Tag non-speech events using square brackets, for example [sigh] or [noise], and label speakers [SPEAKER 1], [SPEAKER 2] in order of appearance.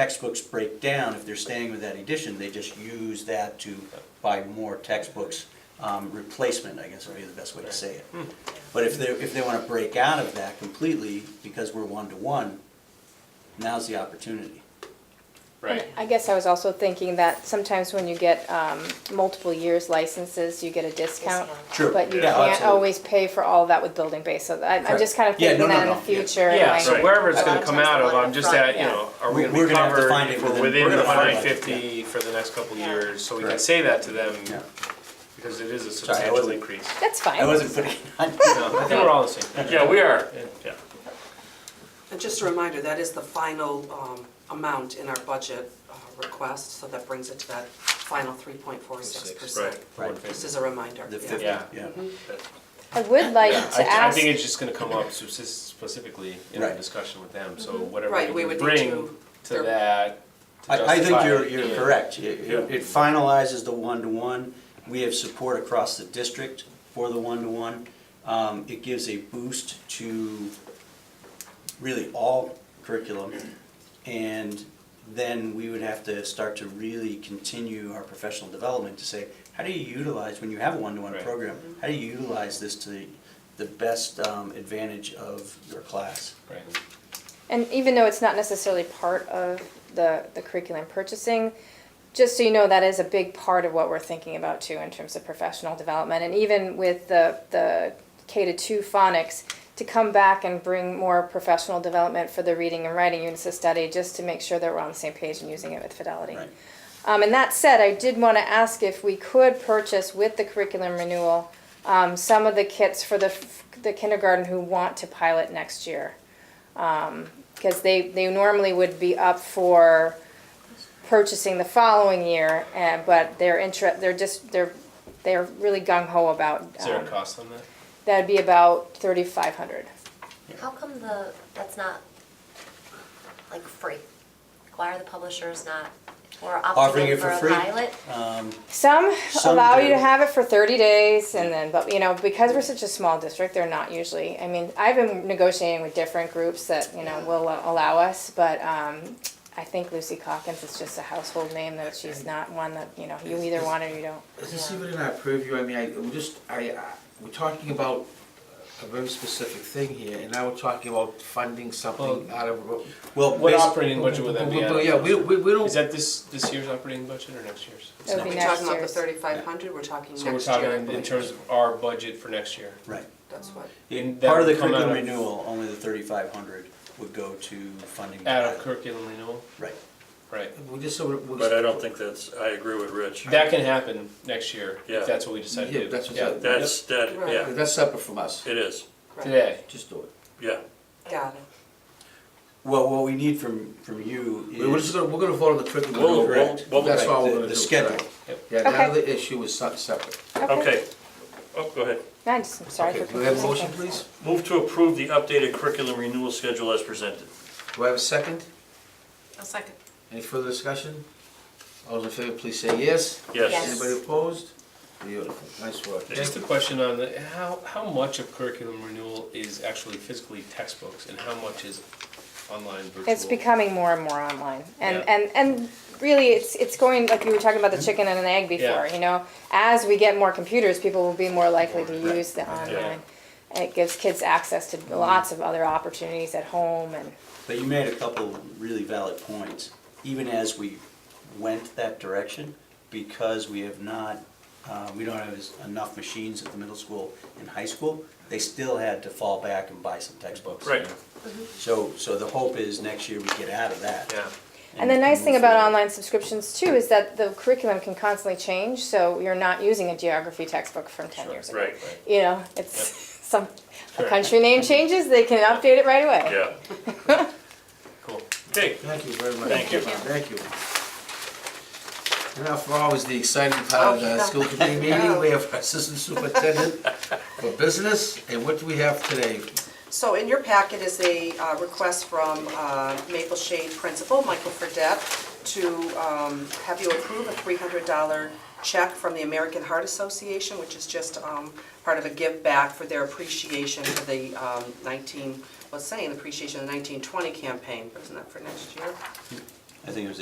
[SPEAKER 1] textbooks break down, if they're staying with that edition, they just use that to buy more textbooks. Um, replacement, I guess would be the best way to say it. But if they, if they wanna break out of that completely, because we're one-to-one, now's the opportunity.
[SPEAKER 2] Right.
[SPEAKER 3] I guess I was also thinking that sometimes when you get um, multiple years licenses, you get a discount.
[SPEAKER 1] True.
[SPEAKER 3] But you
[SPEAKER 1] Yeah,
[SPEAKER 3] can't
[SPEAKER 1] absolutely.
[SPEAKER 3] always pay for all that with building base, so I- I'm just kind of
[SPEAKER 1] Correct. Yeah, no,
[SPEAKER 3] thinking
[SPEAKER 1] no,
[SPEAKER 3] that in the
[SPEAKER 1] no, yeah.
[SPEAKER 3] future.
[SPEAKER 2] Yeah,
[SPEAKER 3] like- uh,
[SPEAKER 2] so wherever it's
[SPEAKER 4] a lot
[SPEAKER 2] gonna
[SPEAKER 4] of
[SPEAKER 2] come
[SPEAKER 4] times
[SPEAKER 2] out
[SPEAKER 4] they
[SPEAKER 2] of,
[SPEAKER 4] want
[SPEAKER 2] I'm
[SPEAKER 4] it
[SPEAKER 2] just
[SPEAKER 4] front,
[SPEAKER 2] at, you
[SPEAKER 3] yeah.
[SPEAKER 2] know, are we gonna
[SPEAKER 1] We're
[SPEAKER 2] be
[SPEAKER 1] gonna have to
[SPEAKER 2] covered
[SPEAKER 1] find it
[SPEAKER 2] if we're
[SPEAKER 1] within-
[SPEAKER 2] within
[SPEAKER 1] we're
[SPEAKER 2] the
[SPEAKER 1] gonna
[SPEAKER 2] hundred
[SPEAKER 1] find
[SPEAKER 2] and
[SPEAKER 1] it,
[SPEAKER 2] fifty for the next couple of
[SPEAKER 4] Yeah.
[SPEAKER 2] years? So we can
[SPEAKER 1] Correct.
[SPEAKER 2] say that to them,
[SPEAKER 1] Yeah.
[SPEAKER 2] because it is a
[SPEAKER 1] Sorry, I
[SPEAKER 2] substantial
[SPEAKER 1] wasn't-
[SPEAKER 2] increase.
[SPEAKER 3] That's
[SPEAKER 1] I
[SPEAKER 3] fine.
[SPEAKER 1] wasn't putting, on-
[SPEAKER 2] No, I think we're all on the same page.
[SPEAKER 5] Yeah, we are.
[SPEAKER 2] Yeah.
[SPEAKER 4] And just a reminder, that is the final um, amount in our budget uh, request, so that brings it to that final 3.46%.
[SPEAKER 2] Right.
[SPEAKER 1] Right.
[SPEAKER 4] Just as a reminder.
[SPEAKER 1] the
[SPEAKER 4] yeah.
[SPEAKER 1] fifty,
[SPEAKER 2] Yeah.
[SPEAKER 1] yeah.
[SPEAKER 3] I would
[SPEAKER 1] [coughs]
[SPEAKER 3] like
[SPEAKER 2] Yeah,
[SPEAKER 3] to
[SPEAKER 2] I, I
[SPEAKER 3] ask,
[SPEAKER 2] think it's just gonna come up speci- specifically in our
[SPEAKER 1] Right.
[SPEAKER 2] discussion with them, so whatever
[SPEAKER 4] Right, we
[SPEAKER 2] we can
[SPEAKER 4] would
[SPEAKER 2] bring
[SPEAKER 4] need to-
[SPEAKER 2] to that to
[SPEAKER 1] I, I think
[SPEAKER 2] justify
[SPEAKER 1] you're,
[SPEAKER 2] it,
[SPEAKER 1] you're
[SPEAKER 2] yeah.
[SPEAKER 1] correct. It
[SPEAKER 2] Yeah.
[SPEAKER 1] it finalizes the one-to-one. We have support across the district for the one-to-one. Um, it gives a boost to really all curriculum. And then we would have to start to really continue our professional development to say, how do you utilize, when you have a one-to-one
[SPEAKER 2] Right.
[SPEAKER 1] program, how do you utilize this to the, the best um, advantage of your class?
[SPEAKER 2] Right.
[SPEAKER 3] and even though it's not necessarily part of the the curriculum purchasing, just so you know, that is a big part of what we're thinking about too in terms of professional development. And even with the, the K to two phonics, to come back and bring more professional development for the reading and writing units of study, just to make sure that we're on the same page and using it with fidelity.
[SPEAKER 1] Right.
[SPEAKER 3] Um, and that said, I did want to ask if we could purchase with the curriculum renewal, um, some of the kits for the, f- the kindergarten who want to pilot next year. Because they, they normally would be up for purchasing the following year, and, but they're inter, they're just, they're, they're really gung ho about.
[SPEAKER 2] Is there a
[SPEAKER 3] um,
[SPEAKER 2] cost on that?
[SPEAKER 3] That'd be about thirty-five hundred.
[SPEAKER 6] How come the, that's not like free? Like, Why are the publishers not, or
[SPEAKER 1] Offering
[SPEAKER 6] opting
[SPEAKER 1] it
[SPEAKER 6] in
[SPEAKER 1] for
[SPEAKER 6] for a
[SPEAKER 1] free?
[SPEAKER 6] pilot?
[SPEAKER 1] Um,
[SPEAKER 3] Some
[SPEAKER 1] Some
[SPEAKER 3] allow you
[SPEAKER 1] do.
[SPEAKER 3] to have it for thirty days and then, but you know, because we're such a small district, they're not usually, I mean, I've been negotiating with different groups that, you know, will allow us, but, um, I think Lucy Calkins is just a household name that she's not one that, you know, you either want or you don't.
[SPEAKER 7] Is this even in our purview? I mean, I, we just, I, I- we're talking about a very specific thing here, and now we're talking about funding something out of.
[SPEAKER 1] Well,
[SPEAKER 2] What
[SPEAKER 1] basi-
[SPEAKER 2] operating budget would that be at?
[SPEAKER 7] Yeah, we, we, we
[SPEAKER 2] Is
[SPEAKER 7] don't,
[SPEAKER 2] that this, this year's operating budget or next year's?
[SPEAKER 3] It would be
[SPEAKER 4] We're
[SPEAKER 3] next
[SPEAKER 4] talking about the
[SPEAKER 3] year's.
[SPEAKER 4] 3,500, we're talking
[SPEAKER 2] So we're
[SPEAKER 4] next year. I
[SPEAKER 2] talking in
[SPEAKER 4] believe.
[SPEAKER 2] terms of our budget for next year.
[SPEAKER 1] Right.
[SPEAKER 4] That's what,
[SPEAKER 1] In-
[SPEAKER 2] That
[SPEAKER 1] Part of the
[SPEAKER 2] would come
[SPEAKER 1] curriculum
[SPEAKER 2] out of-
[SPEAKER 1] renewal, only the thirty-five hundred would go to funding.
[SPEAKER 2] Out of curriculum renewal,
[SPEAKER 1] Right,
[SPEAKER 2] right.
[SPEAKER 7] we just, so we're. we're-
[SPEAKER 5] But I don't think that's, I agree with Rich.
[SPEAKER 2] That can happen next year,
[SPEAKER 5] Yeah.
[SPEAKER 2] if that's what we decide to do.
[SPEAKER 7] Yeah, that's what's
[SPEAKER 2] Yeah.
[SPEAKER 7] up.
[SPEAKER 5] That's, that,
[SPEAKER 4] Right.
[SPEAKER 5] yeah,
[SPEAKER 7] That's separate from us.
[SPEAKER 5] it is,
[SPEAKER 4] right,
[SPEAKER 2] Today,
[SPEAKER 7] Just do it.
[SPEAKER 5] yeah.
[SPEAKER 4] got it.
[SPEAKER 1] well, what we need from, from you is.
[SPEAKER 7] We- We're just gonna, we're gonna vote on the curriculum.
[SPEAKER 5] We'll-
[SPEAKER 1] Correct.
[SPEAKER 5] we'll-
[SPEAKER 7] That's
[SPEAKER 1] Right,
[SPEAKER 7] all we're
[SPEAKER 1] the-
[SPEAKER 7] gonna do.
[SPEAKER 1] The schedule,
[SPEAKER 7] tonight. Yeah,
[SPEAKER 3] Okay.
[SPEAKER 7] now the issue is se- separate.
[SPEAKER 5] Okay, oh, go ahead.
[SPEAKER 3] I'm just, I'm sorry
[SPEAKER 7] Okay,
[SPEAKER 3] for
[SPEAKER 7] do we have a
[SPEAKER 3] confusing
[SPEAKER 7] motion,
[SPEAKER 3] things.
[SPEAKER 7] please?
[SPEAKER 5] Move to approve the updated curriculum renewal schedule as presented.
[SPEAKER 7] Do I have a second?
[SPEAKER 4] A second.
[SPEAKER 7] Any further discussion? All those in favor, please say yes.
[SPEAKER 5] Yes.
[SPEAKER 6] Yes.
[SPEAKER 7] Anybody opposed? Beautiful, nice work.
[SPEAKER 2] just a question on the, how, how much of curriculum renewal is actually physically textbooks and how much is online virtual?
[SPEAKER 3] It's becoming more and more online, and
[SPEAKER 2] Yeah.
[SPEAKER 3] and and really, it's it's going like you were talking about the chicken and an egg before.
[SPEAKER 2] Yeah.
[SPEAKER 3] You know, as we get more computers, people will be more likely to use the online. And it gives kids access
[SPEAKER 2] Mm-hmm.
[SPEAKER 3] to lots of other opportunities at home, and
[SPEAKER 1] but you made a couple really valid points, even as we went that direction, because we have not, uh, we don't have as- enough machines at the middle school and high school, they still had to fall back and buy some textbooks.
[SPEAKER 5] Right,
[SPEAKER 1] So, so the hope is next year we get out of that.
[SPEAKER 2] Yeah,
[SPEAKER 3] and
[SPEAKER 2] Mm-hmm.
[SPEAKER 3] the nice thing
[SPEAKER 1] move
[SPEAKER 3] about
[SPEAKER 1] forward.
[SPEAKER 3] online subscriptions too is that the curriculum can constantly change. So you're not using a geography textbook from ten years ago.
[SPEAKER 5] right,
[SPEAKER 3] You know, it's [laughs] some
[SPEAKER 2] Sure.
[SPEAKER 3] a country name changes, they can update it right away.
[SPEAKER 5] yeah.
[SPEAKER 2] cool.
[SPEAKER 5] Okay,
[SPEAKER 7] Thank you very much.
[SPEAKER 5] Thank you.
[SPEAKER 7] Thank you. And now for always the exciting part of the school committee meeting, we have assistant superintendent for business, and what do we have today?
[SPEAKER 4] So in your packet is a uh, request from uh, Maple Shade Principal, Michael Fredette, to um, have you approve a $300 check from the American Heart Association, which is just um, part of a give back for their appreciation for the um, 19, let's say, an appreciation of the 1920 campaign, isn't that for next year?
[SPEAKER 1] I think it was